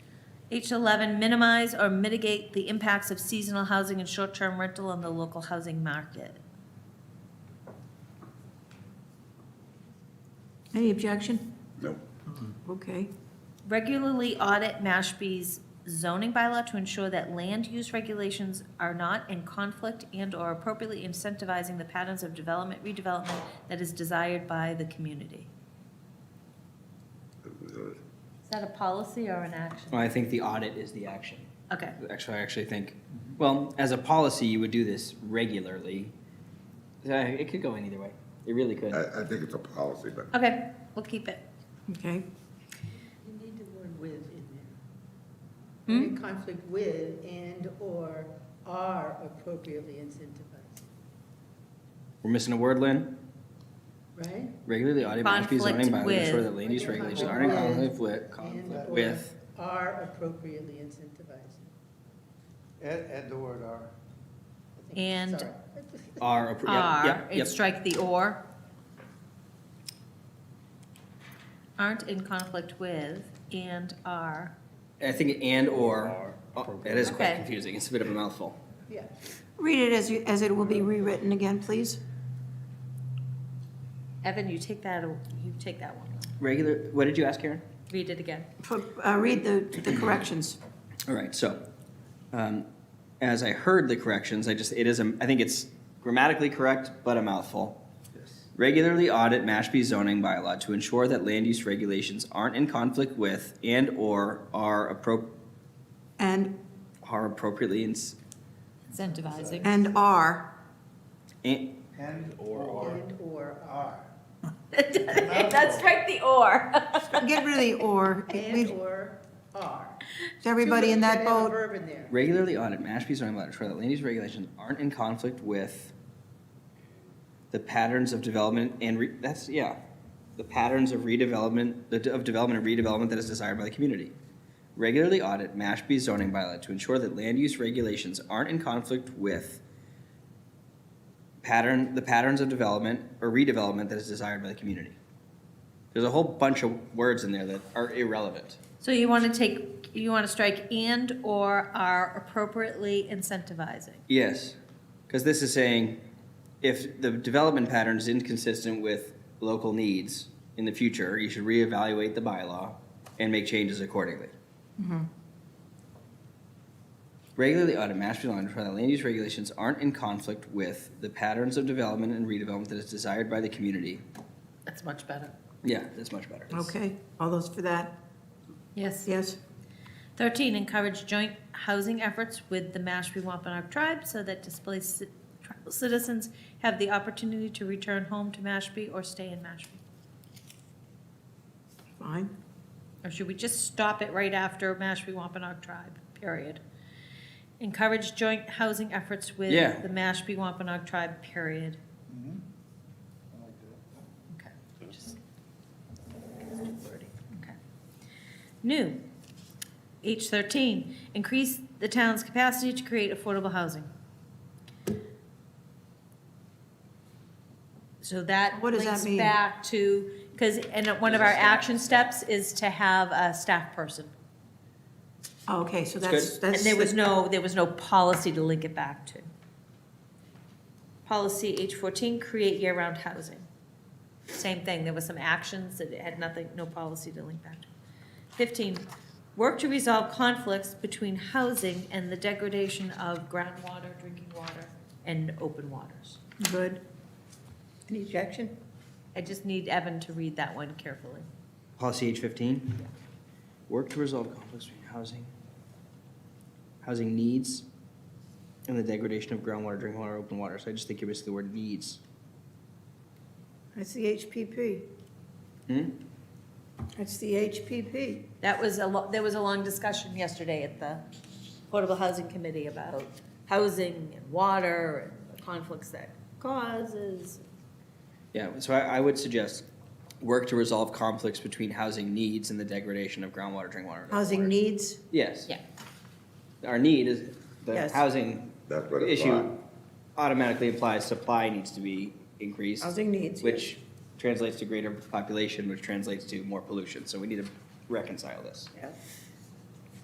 H11, minimize or mitigate the impacts of seasonal housing and short-term rental on the local housing market. Any objection? Nope. Okay. Regularly audit Mashpee's zoning bylaw to ensure that land use regulations are not in conflict and/or appropriately incentivizing the patterns of development redevelopment that is desired by the community. Is that a policy or an action? Well, I think the audit is the action. Okay, Actually, I actually think, well, as a policy, you would do this regularly. Uh, It could go in either way. It really could. I, I think it's a policy, but okay, we'll keep it. Okay. You need the word with in there. Hmm? Any conflict with and/or are appropriately incentivized, We're missing a word, Lynn. right? Regularly audit Mashpee's Conflict zoning bylaw to ensure with. that land use regulations are in conflict with, conflict And/or with. Are appropriately incentivized. Add, add the word "are." I think- And- sorry. Are, appro- yep, Are, yep, and yep. strike the or. Aren't in conflict with and are. I think and/or, that is quite Okay. confusing. It's a bit of a mouthful. Yeah, Read it as, you- as it will be rewritten again, please. Evan, you take that, you take that one. Regular, what did you ask, Karen? Read it again. For- uh, Read the the corrections. All right, so, um, as I heard the corrections, I just, it is, a- I think it's grammatically correct, but a mouthful. Regularly audit Mashpee zoning bylaw to ensure that land use regulations aren't in conflict with and/or are appro, And, are appropriately in, Incentivizing. and are. and, And or and/or are. That's strike the or. Get rid of the or. Is and/or are. everybody in that Two words boat? have a verb in there. regularly audit Mashpee zoning bylaw to ensure that land use regulations aren't in conflict with the patterns of development and re, that's, yeah, the patterns of redevelopment, the de- of development and redevelopment that is desired by the community. Regularly audit Mashpee zoning bylaw to ensure that land use regulations aren't in conflict with pattern, the patterns of development or redevelopment that is desired by the community. There's a whole bunch of words in there that are irrelevant. So you want to take, you want to strike and/or are appropriately incentivizing. Yes, because this is saying if the development pattern is inconsistent with local needs in the future, you should reevaluate the bylaw and make changes accordingly. Regularly audit Mashpee law to ensure that land use regulations aren't in conflict with the patterns of development and redevelopment that is desired by the community. That's much better. Yeah, that's much better. It's- Okay, all those for that? Yes. Yes? 13, encourage joint housing efforts with the Mashpee Wampanoag tribe so that displaced ci- tribal citizens have the opportunity to return home to Mashpee or stay in Mashpee. Fine. Or should we just stop it right after Mashpee Wampanoag tribe, period? Encourage joint housing efforts with Yeah. the Mashpee Wampanoag tribe, period. Mm-hmm. I like that. Okay, just. Okay. New, H thirteen, increase the town's capacity to create affordable housing. So that What does that links mean? back to, because, and one of our action steps is to have a staff person. Okay, so That's that's, good. And that's. there was no, there was no policy to link it back to. Policy H fourteen, create year-round housing. Same thing, there was some actions that had nothing, no policy to link back to. Fifteen, work to resolve conflicts between housing and the degradation of groundwater, drinking water, and open waters. Good. Any objection? I just need Evan to read that one carefully. Policy H fifteen? Work to resolve conflicts between housing, housing needs, and the degradation of groundwater, drinking water, open water. So I just think you're missing the word needs. That's the HPP. Hmm? That's the HPP. That was a lo, there was a long discussion yesterday at the Portable Housing Committee about housing and water and the conflicts that causes. Yeah, so I, I would suggest work to resolve conflicts between housing needs and the degradation of groundwater, drinking water. and open Housing water. needs. Yes. Yeah. Our need is, the Yes. housing that's what it's issue on. automatically implies supply needs to be increased. Housing needs. which translates to greater population, which translates to more pollution. So we need to reconcile this. Yeah.